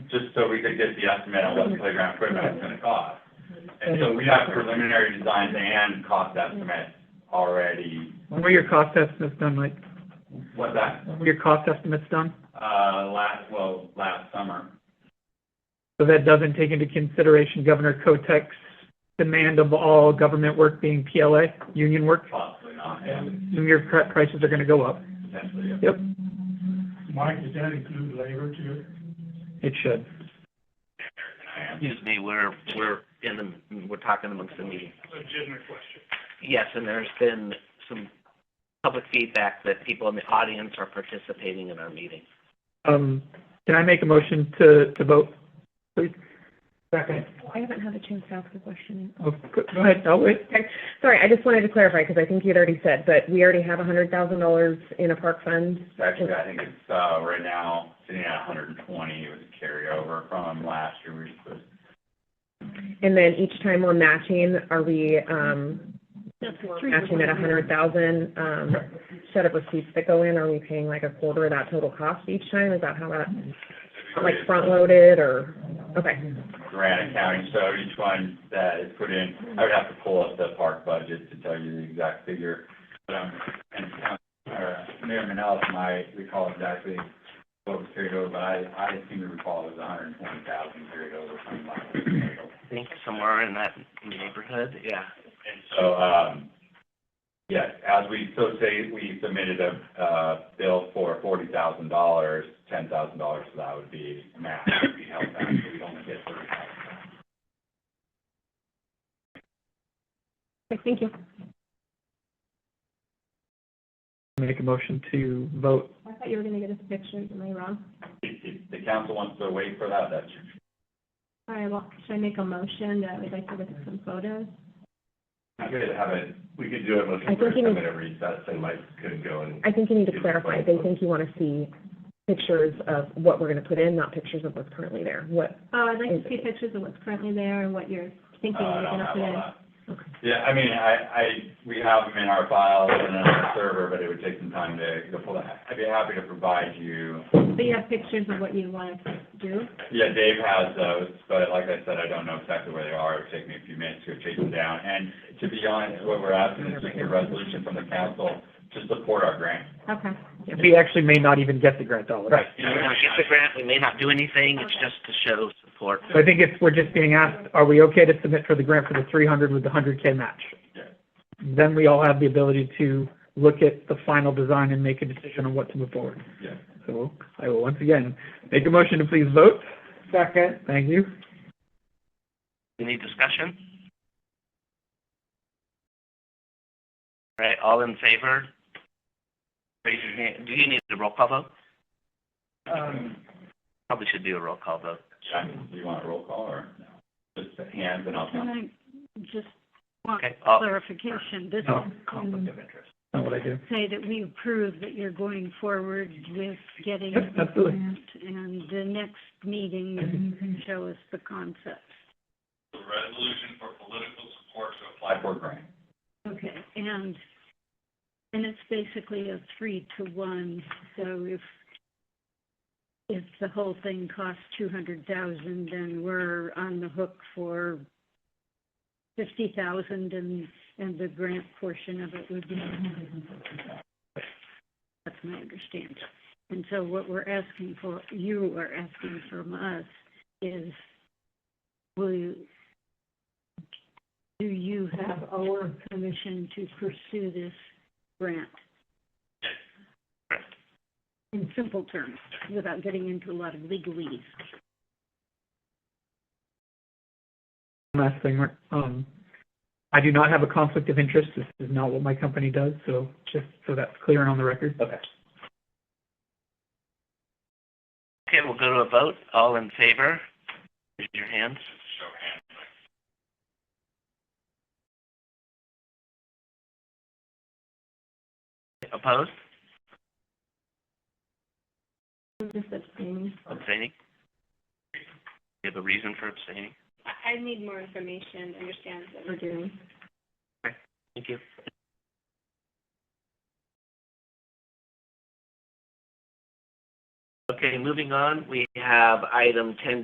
just so we could get the estimate on what playground equipment is gonna cost. And so we have preliminary designs and cost estimate already, When were your cost estimates done, Mike? what's that, When were your cost estimates done? uh, last, well, last summer. So that doesn't take into consideration Governor Kotek's demand of all government work being PLA, union work? Possibly not, yeah, Assume your pri- prices are gonna go up. potentially, yeah. Yep, Mike, does that include labor too? it should. I am. Excuse me, we're, we're in the, we're talking amongst the meeting. Legitimate question. Yes, and there's been some public feedback that people in the audience are participating in our meeting. Um, can I make a motion to, to vote, please? Second. I haven't had a chance to ask a question. Oh, go go ahead, I'll wait. Okay, sorry, I just wanted to clarify, because I think you'd already said, but we already have a hundred thousand dollars in a park fund. Actually, I think it's, uh, right now, sitting at hundred and twenty, it was a carryover from last year, we just put And then each time we're matching, are we, um, matching at a hundred thousand, um, shut up receipts that go in, are we paying like a quarter of that total cost each time? Is that how that, like front-loaded, or, okay, grant accounting, so each one that is put in, I would have to pull up the park budget to tell you the exact figure. But, um, and, um, uh, Mayor Manellis might recall exactly what was carried over, but I, I seem to recall it was hundred and twenty thousand carried over from last year. I think somewhere in that neighborhood, yeah. And so, um, yeah, as we, so say we submitted a, uh, bill for forty thousand dollars, ten thousand dollars, so that would be match, would be held back, so we'd only get thirty thousand. thank you. Make a motion to vote. I thought you were gonna get us pictures, am I wrong? If, if the council wants to wait for that, that's All right, well, should I make a motion that we'd like to look at some photos? I could have it, we could do it, let's I think you have need- it at recess, and Mike could go and. I think you need to clarify, they think you wanna see pictures of what we're gonna put in, not pictures of what's currently there, what, Oh, I'd like to see pictures of what's currently there and what you're Uh, thinking I you're don't gonna have put all in. that. Yeah, I mean, I, I, we have them in our files and on our server, but it would take some time to, to pull that. I'd be happy to provide you, But you have pictures of what you want to do? yeah, Dave has those, but like I said, I don't know exactly where they are, it would take me a few minutes to chase them down. And to be honest, what we're asking is just a resolution from the council to support our grant. Okay. We actually may not even get the grant dollars. You know, we might get the grant, we may not do anything, it's just to show support. So I think it's, we're just being asked, are we okay to submit for the grant for the three hundred with the hundred K match? Yeah. Then we all have the ability to look at the final design and make a decision on what to move forward. Yeah. So I will once again make a motion to please vote. Second. Thank you. Any discussion? All right, all in favor? Raise your hand. Do you need a roll call vote? Um. Probably should do a roll call vote. John, do you want a roll call or no? Just hands and I'll. Can I just want Okay, Uh, all, clarification? This No, can of interest. Not what I do. say that we approve that you're going forward with getting Yep, the absolutely. grant, and the next meeting, you can show us the concept. The resolution for political support to apply for grant. Okay, and, and it's basically a three to one, so if, if the whole thing costs two hundred thousand, then we're on the hook for fifty thousand and, and the grant portion of it would be. That's my understanding. And so what we're asking for, you are asking from us is, will you, do you have our permission to pursue this grant? Correct. In simple terms, without getting into a lot of legalese. Last thing, Mark, um, I do not have a conflict of interest. This is not what my company does, so just so that's clear and on the record. Okay. okay, we'll go to a vote. All in favor? Raise your hands. Opposed? I'm just abstaining. Abstaining? Do you have a reason for abstaining? I, I need more information, understand what we're doing. Thank you. Okay, moving on, we have item ten